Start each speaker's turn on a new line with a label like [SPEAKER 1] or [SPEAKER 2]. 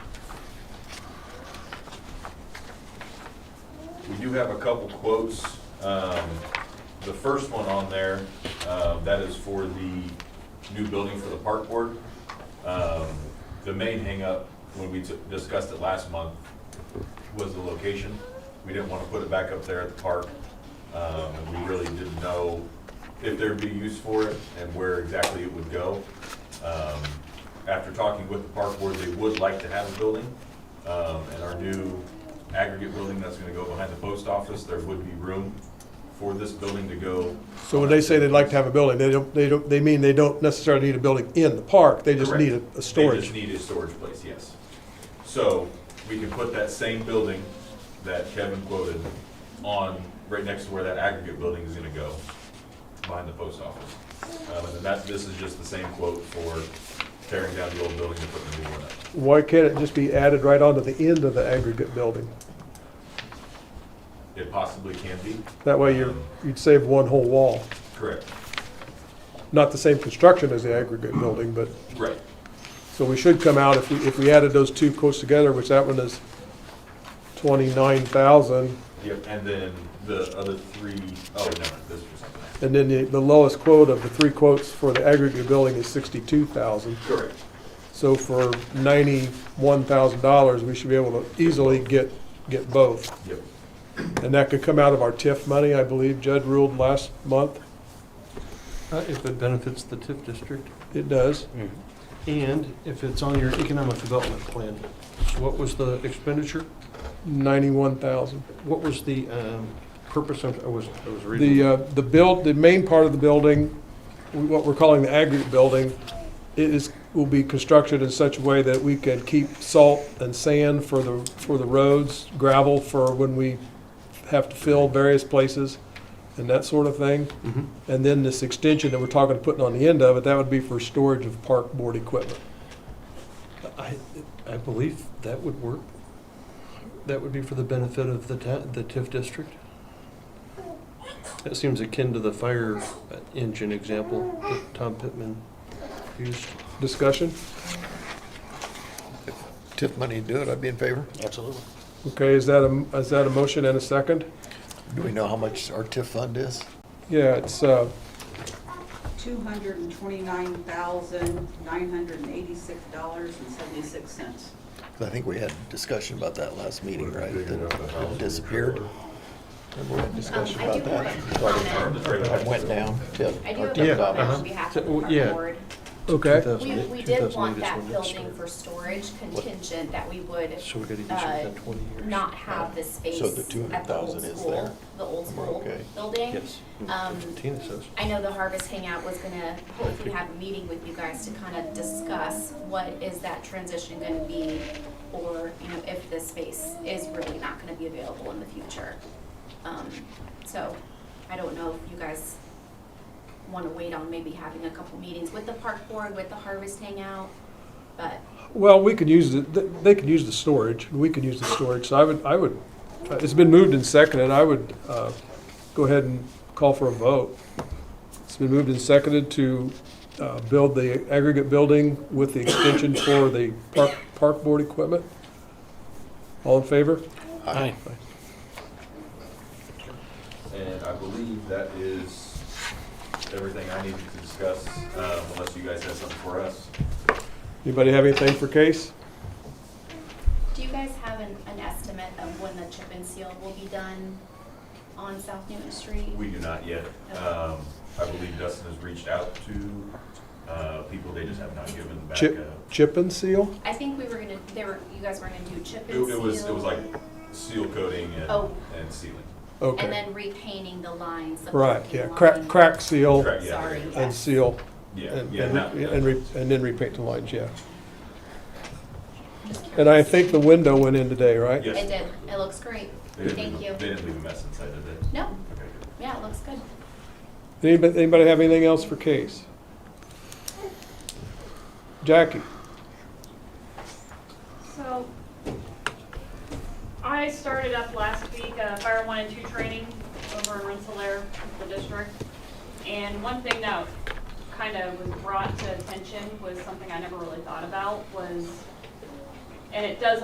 [SPEAKER 1] do have a couple quotes. Um, The first one on there, uh, that is for the new building for the park board. Um, The main hangup, when we t- discussed it last month, was the location. We didn't want to put it back up there at the park. Um, and We really didn't know if there'd be use for it and where exactly it would go. Um, After talking with the park board, they would like to have a building. Um, And our new aggregate building that's going to go behind the post office, there would be room for this building to go.
[SPEAKER 2] So when they say they'd like to have a building, they don't, they don't, they mean they don't necessarily need a building in the park, they just
[SPEAKER 1] Correct.
[SPEAKER 2] need a, a
[SPEAKER 1] They just
[SPEAKER 2] storage.
[SPEAKER 1] need a storage place, yes. So we can put that same building that Kevin quoted on, right next to where that aggregate building is gonna go, behind the post office. Um, and then that, this is just the same quote for tearing down the old building and putting the new one up.
[SPEAKER 2] Why can't it just be added right onto the end of the aggregate building?
[SPEAKER 1] It possibly can be,
[SPEAKER 2] That way you're, you'd save one whole wall.
[SPEAKER 1] correct?
[SPEAKER 2] Not the same construction as the aggregate building, but,
[SPEAKER 1] Right.
[SPEAKER 2] so we should come out, if we, if we added those two quotes together, which that one is twenty-nine thousand,
[SPEAKER 1] Yep, and then the other three, oh, no, this was something else.
[SPEAKER 2] and then the, the lowest quote of the three quotes for the aggregate building is sixty-two thousand.
[SPEAKER 1] Correct.
[SPEAKER 2] So for ninety-one thousand dollars, we should be able to easily get, get both.
[SPEAKER 1] Yep,
[SPEAKER 2] And that could come out of our TIF money, I believe Judd ruled last month.
[SPEAKER 3] Uh, If it benefits the TIF district,
[SPEAKER 2] It does.
[SPEAKER 3] and if it's on your economic development plan. What was the expenditure?
[SPEAKER 2] Ninety-one thousand.
[SPEAKER 3] What was the um, purpose of, I was, I was reading.
[SPEAKER 2] The, uh, the build, the main part of the building, what we're calling the aggregate building, it is, will be constructed in such a way that we can keep salt and sand for the, for the roads, gravel for when we have to fill various places and that sort of thing.
[SPEAKER 3] Mhm.
[SPEAKER 2] And then this extension that we're talking, putting on the end of it, that would be for storage of park board equipment.
[SPEAKER 3] I, I believe that would work. That would be for the benefit of the ta, the TIF district. That seems akin to the fire uh, engine example that Tom Pittman used.
[SPEAKER 2] Discussion?
[SPEAKER 4] TIF money to do it, I'd be in favor.
[SPEAKER 5] Absolutely.
[SPEAKER 2] Okay, is that a, is that a motion and a second?
[SPEAKER 4] Do we know how much our TIF fund is?
[SPEAKER 2] Yeah, it's, uh,
[SPEAKER 6] two hundred and twenty-nine thousand, nine hundred and eighty-six dollars and seventy-six cents.
[SPEAKER 4] 'Cause I think we had discussion about that last meeting, right? That it disappeared. Remember we had discussion
[SPEAKER 7] Um, I
[SPEAKER 4] about
[SPEAKER 7] do
[SPEAKER 4] that?
[SPEAKER 7] have a comment.
[SPEAKER 1] It's right
[SPEAKER 4] It
[SPEAKER 1] up.
[SPEAKER 4] went down, TIF,
[SPEAKER 7] I do
[SPEAKER 4] our
[SPEAKER 7] have a
[SPEAKER 4] TIF
[SPEAKER 3] Yeah,
[SPEAKER 7] comment
[SPEAKER 4] dollars.
[SPEAKER 3] uh-huh.
[SPEAKER 7] on behalf
[SPEAKER 3] So,
[SPEAKER 7] of the park
[SPEAKER 3] yeah.
[SPEAKER 7] board.
[SPEAKER 2] okay.
[SPEAKER 3] 2008
[SPEAKER 7] We, we did
[SPEAKER 3] 2008
[SPEAKER 7] want
[SPEAKER 3] is
[SPEAKER 7] that
[SPEAKER 3] when it
[SPEAKER 7] building
[SPEAKER 3] started.
[SPEAKER 7] for storage contingent that we would
[SPEAKER 3] So we gotta use it
[SPEAKER 7] uh,
[SPEAKER 3] within 20 years.
[SPEAKER 7] not have the space
[SPEAKER 4] So the
[SPEAKER 7] at the
[SPEAKER 4] 200,000
[SPEAKER 7] old
[SPEAKER 4] is
[SPEAKER 7] school,
[SPEAKER 4] there.
[SPEAKER 7] the old
[SPEAKER 4] We're
[SPEAKER 7] school
[SPEAKER 4] okay.
[SPEAKER 7] building.
[SPEAKER 3] Yes.
[SPEAKER 7] Um,
[SPEAKER 3] Tina says.
[SPEAKER 7] I know the Harvest Hangout was gonna hopefully have a meeting with you guys to kind of discuss what is that transition gonna be? Or, you know, if this space is really not gonna be available in the future. Um, so, I don't know if you guys wanna wait on maybe having a couple meetings with the park board, with the Harvest Hangout, but
[SPEAKER 2] Well, we could use, the th- they could use the storage, and we could use the storage, so I would, I would, uh, it's been moved and seconded, I would uh, go ahead and call for a vote. It's been moved and seconded to uh, build the aggregate building with the extension for the park, park board equipment. All in favor?
[SPEAKER 4] Aye.
[SPEAKER 1] And I believe that is everything I needed to discuss, um, unless you guys have something for us.
[SPEAKER 2] Anybody have anything for Case?
[SPEAKER 7] do you guys have an, an estimate of when the chip and seal will be done on South Newton Street?
[SPEAKER 1] We do not yet. Um, I believe Dustin has reached out to uh, people, they just have not given back uh,
[SPEAKER 2] Chip,
[SPEAKER 1] a.
[SPEAKER 2] chip and seal?
[SPEAKER 7] I think we were gonna, they were, you guys were gonna do chip
[SPEAKER 1] It
[SPEAKER 7] and seal.
[SPEAKER 1] it was, it was like seal coating and,
[SPEAKER 7] Oh.
[SPEAKER 1] and sealing.
[SPEAKER 7] And
[SPEAKER 2] Okay,
[SPEAKER 7] then repainting the lines. the
[SPEAKER 2] right,
[SPEAKER 7] parking
[SPEAKER 2] yeah,
[SPEAKER 7] line.
[SPEAKER 2] crack, crack seal
[SPEAKER 1] Correct, yeah.
[SPEAKER 7] Sorry,
[SPEAKER 2] and
[SPEAKER 7] yes.
[SPEAKER 2] seal,
[SPEAKER 1] Yeah,
[SPEAKER 2] and,
[SPEAKER 1] yeah, not.
[SPEAKER 2] and, and re- and then repaint the lines, yeah.
[SPEAKER 7] Just curious.
[SPEAKER 2] And I think the window went in today, right?
[SPEAKER 1] Yes.
[SPEAKER 7] It did, it looks great,
[SPEAKER 1] They didn't
[SPEAKER 7] thank
[SPEAKER 1] leave-
[SPEAKER 7] you.
[SPEAKER 1] They didn't leave a mess inside, did they?
[SPEAKER 7] No,
[SPEAKER 1] Okay, good.
[SPEAKER 7] yeah, it looks good.
[SPEAKER 2] Anybody, anybody have anything else for Case? Jackie?
[SPEAKER 8] So, I started up last week a fire one and two training over in Rensselaer, the district. And one thing that kind of was brought to attention was something I never really thought about was, and it does